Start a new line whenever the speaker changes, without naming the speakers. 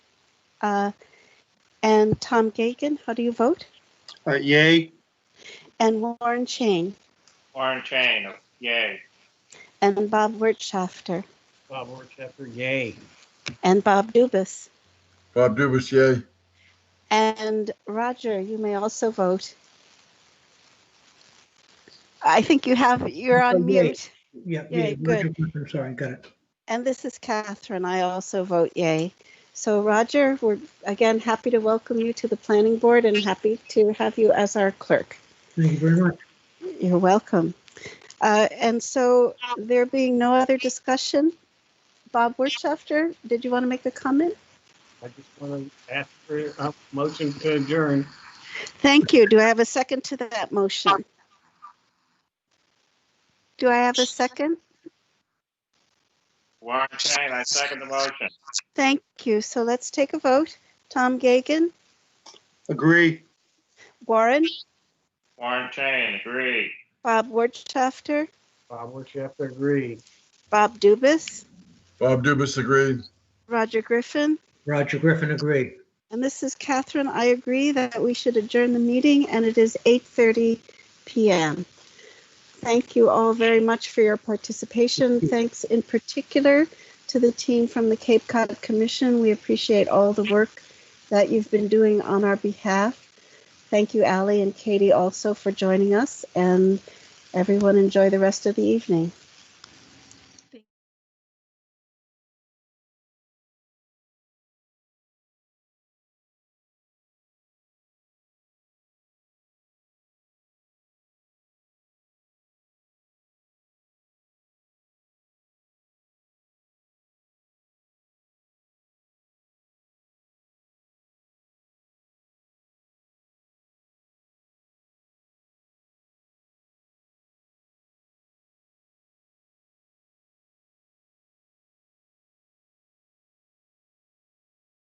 Uh, and Tom Gagan, how do you vote?
Uh, yay,
And Warren Chain
Warren Chain, yay.
and Bob Wertschafter
Bob Orchester, yay.
and Bob Dubus.
Bob Dubus, yay.
And Roger, you may also vote. I think you have, you're on
Yay.
mute.
Yeah.
Yeah,
yeah,
good.
Roger, Sorry, got it.
And this is Catherine. I also vote yay. So Roger, we're again happy to welcome you to the planning board and happy to have you as our clerk.
Thank you very much.
You're welcome. Uh, and so there being no other discussion, Bob Wirtschafter, did you want to make a comment?
I just want to ask for a motion to adjourn.
Thank you. Do I have a second to that motion? Do I have a second?
Warren Chain, I second the motion.
Thank you. So let's take a vote. Tom Gagan,
agree.
Warren,
Warren Chain, agree.
Bob Wirtschafter,
Bob Orchester, agree.
Bob Dubus,
Bob Dubus, agree.
Roger Griffin,
Roger Griffin, agree.
and this is Catherine. I agree that we should adjourn the meeting, and it is 8:30 p.m. Thank you all very much for your participation. Thanks in particular to the team from the Cape Cod Commission. We appreciate all the work that you've been doing on our behalf. Thank you, Ally and Katie, also for joining us, and everyone enjoy the rest of the evening.